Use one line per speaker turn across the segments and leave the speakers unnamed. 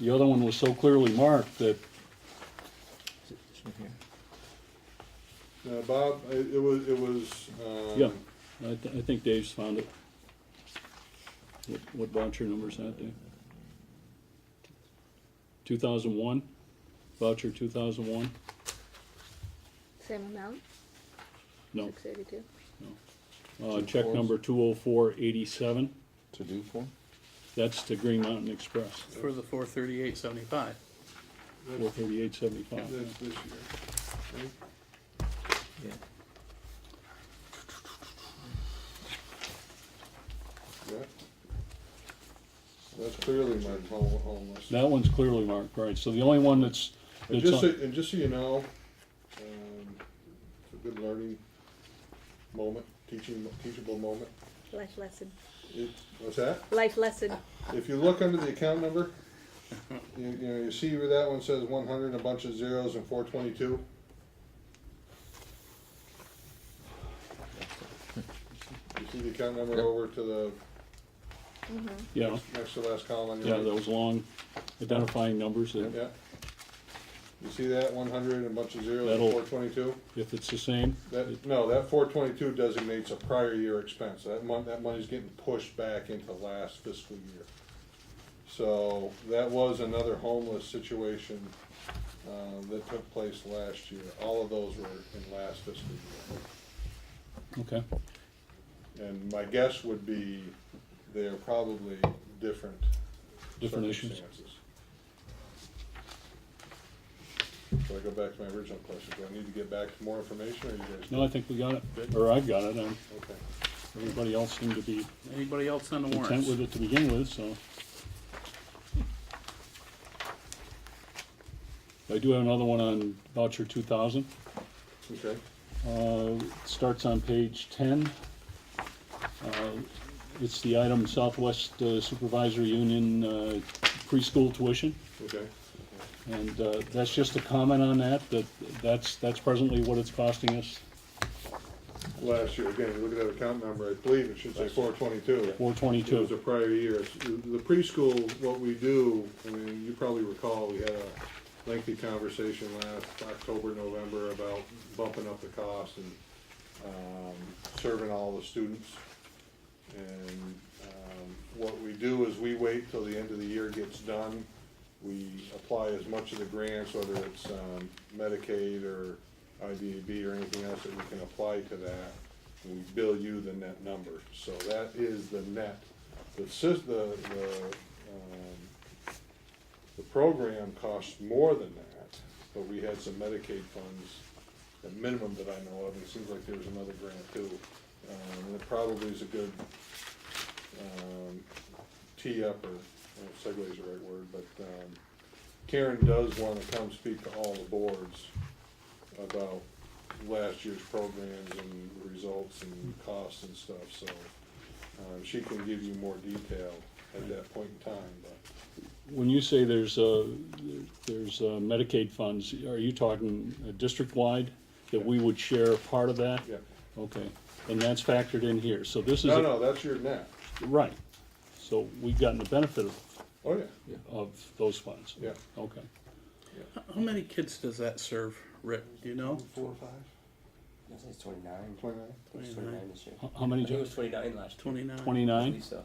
The other one was so clearly marked that,
Uh, Bob, it it was, it was, um.
yeah, I, th- I think Dave's found it. What, what voucher number is that, Dave? Two thousand one, voucher two thousand one,
Same amount,
no,
six eighty-two.
uh, check number two oh four eighty-seven,
To do for?
that's to Green Mountain Express,
for the four thirty-eight seventy-five.
four
That's,
thirty-eight seventy-five.
that's this year. Okay.
Yeah.
Yeah. That's clearly my home, homeless.
That one's clearly marked, right, so the only one that's,
And
that's,
just, so-
on-
and just so you know, um, it's a good learning moment, teaching, teachable moment.
Life lesson,
It, what's that?
life lesson.
If you look under the account number, you, you know, you see where that one says one hundred, a bunch of zeros and four twenty-two? You see the account number
Yep.
over to the
yeah,
next to last column on
yeah,
your right?
those long identifying numbers that,
Yeah. You see that, one hundred, a bunch of zeros
That'll-
and four twenty-two?
if it's the same,
That, no, that four twenty-two designates a prior year expense, that mon- that money's getting pushed back into last fiscal year. So, that was another homeless situation, uh, that took place last year, all of those were in last fiscal year.
okay,
And my guess would be, they're probably different
Different issues.
circumstances. So I go back to my original question, do I need to get back to more information, or you guys?
no, I think we got it, or I've got it, I'm.
Okay.
Everybody else seemed to be
Anybody else on the
content
warrants?
with it to begin with, so. I do have another one on voucher two thousand.
Okay.
Uh, it starts on page ten. Uh, It's the item Southwest uh, Supervisor Union uh, preschool tuition.
Okay,
And uh, that's just a comment on that, that that's, that's presently what it's costing us,
last year, again, you look at that account number, I believe it should say four
four
twenty-two. It was a
twenty-two.
prior year, It's- the preschool, what we do, I mean, you probably recall, we had a lengthy conversation last October, November about bumping up the cost and, um, serving all the students. And, um, what we do is we wait till the end of the year gets done, we apply as much of the grants, whether it's, um, Medicaid or IDB or anything else that we can apply to that. We bill you the net number, so that is the net. The sys, the, the, um, the program costs more than that, but we had some Medicaid funds, the minimum that I know of, and it seems like there was another grant too. Um, and it probably is a good, um, tee up or, I don't know if segue is the right word, but, um, Karen does wanna come speak to all the boards about last year's programs and results and costs and stuff, so, um, she can give you more detail at that point in time, but
When you say there's, uh, there's uh, Medicaid funds, are you talking uh, district-wide, that we would share a part of that?
Yeah.
Okay, and that's factored in here, so this is.
No,
a-
no, that's your net.
Right, so we've gotten the benefit of,
Oh, yeah,
of those funds?
yeah.
Okay,
How many kids does that serve, Rick? Do you know?
Four or five?
I think it's 29. I think
Twenty-nine?
it's 29 this year.
How- how many,
I think it
Jeff?
was 29 last year.
Twenty-nine?
I
Twenty-nine?
believe so.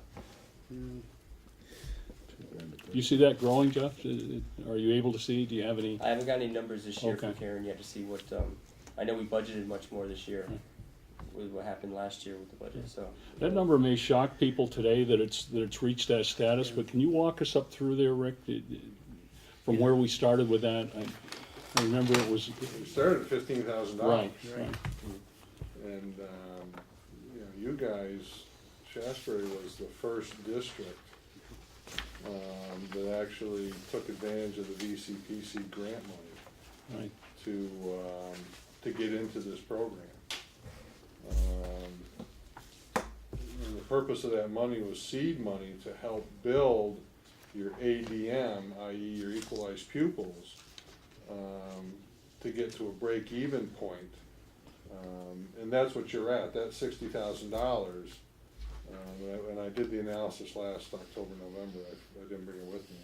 Do you see that growing, Jeff? Uh, Are you able to see, do you have any?
I haven't got any numbers this year from
Okay.
Karen yet to see what. Um, I know we budgeted much more this year
Hmm.
with what happened last year with the budget. So
That number may shock people today that it's, that it's reached that status, but can you walk us up through there, Rick? Did- did- From where we started with that, I, I remember it was,
We started at fifteen thousand dollars.
right, right.
And, um, you know, you guys, Shasberry was the first district, um, that actually took advantage of the VCPC grant money.
right.
to, um, to get into this program. Um, and the purpose of that money was seed money to help build your ADM, i.e. your equalized pupils, um, to get to a break-even point. Um, and that's what you're at, that sixty thousand dollars. Um, and I- and I did the analysis last October, November, I, I didn't bring it with me,